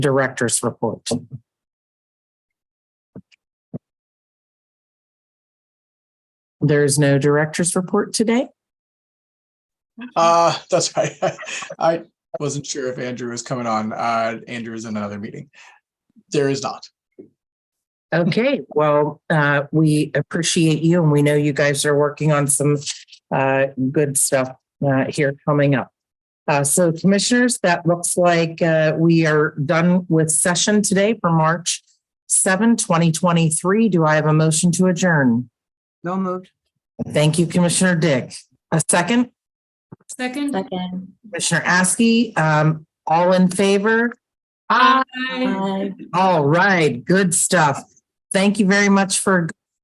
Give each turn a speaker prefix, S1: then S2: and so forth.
S1: director's report. There's no director's report today.
S2: Uh, that's right. I wasn't sure if Andrew was coming on. Uh, Andrew is in another meeting. There is not.
S1: Okay, well, uh, we appreciate you and we know you guys are working on some uh, good stuff uh, here coming up. Uh, so commissioners, that looks like uh, we are done with session today for March 7, 2023. Do I have a motion to adjourn?
S3: No moved.
S1: Thank you, Commissioner Dick. A second?
S4: Second.
S5: Second.
S1: Commissioner Askey, um, all in favor?
S4: Aye.
S5: Aye.
S1: All right, good stuff. Thank you very much for a good